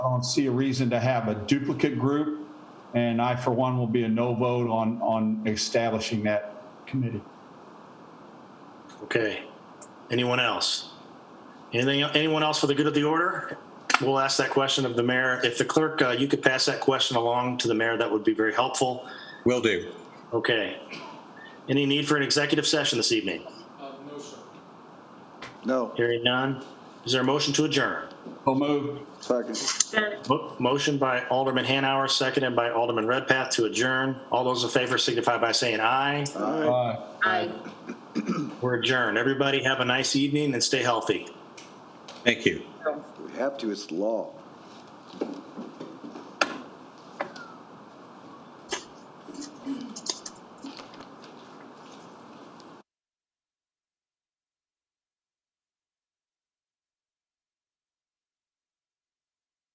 I don't see a reason to have a duplicate group, and I, for one, will be a no vote on, on establishing that committee. Okay. Anyone else? Anything, anyone else for the good of the order? We'll ask that question of the mayor. If the clerk, uh, you could pass that question along to the mayor, that would be very helpful. Will do. Okay. Any need for an executive session this evening? No, Hearing none. Is there a motion to adjourn? So moved. second. Mo- Motion by Alderman Hanauer, seconded by Alderman Redpath to adjourn. All those in favor signify by saying aye. Aye. Aye. Aye. We're adjourned. Everybody have a nice evening and stay healthy. Thank you. We have to, it's law.